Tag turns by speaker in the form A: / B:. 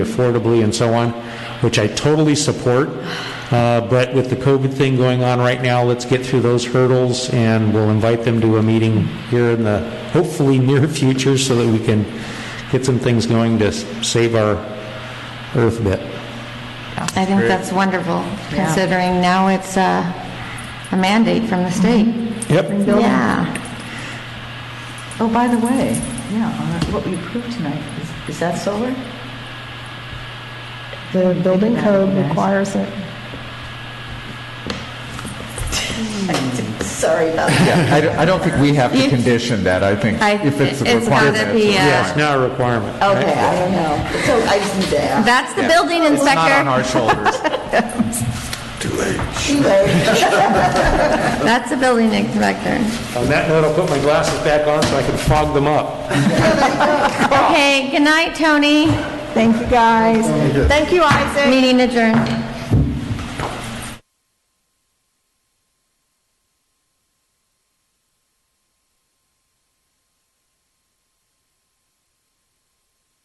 A: affordably and so on, which I totally support. Uh, But with the COVID thing going on right now, let's get through those hurdles, and we'll invite them to a meeting here in the hopefully near future so that we can get some things going to s- save our earth a bit.
B: I think that's wonderful, considering now it's uh, a mandate from the state.
A: Yep.
B: Yeah.
C: Oh, by the way, yeah, on that- what we approved tonight, is- is that solar?
D: The building code requires it.
C: Sorry about that.
E: Yeah, I don't- I don't think we have to
B: You-
E: condition that, I think,
B: I-
E: if it's a
B: it's gotta
E: requirement.
B: be,
E: it's a
B: uh,
E: requirement.
A: It's now a requirement.
C: Okay, I don't know. So I just need to ask.
B: That's the building inspector.
E: It's not on our shoulders.
C: Anyway,
B: That's the building inspector.
A: On that note, I'll put my glasses back on so I can fog them up.
B: Okay, good night, Tony.
D: Thank you, guys. Thank you, Isaac.
B: Meeting adjourned.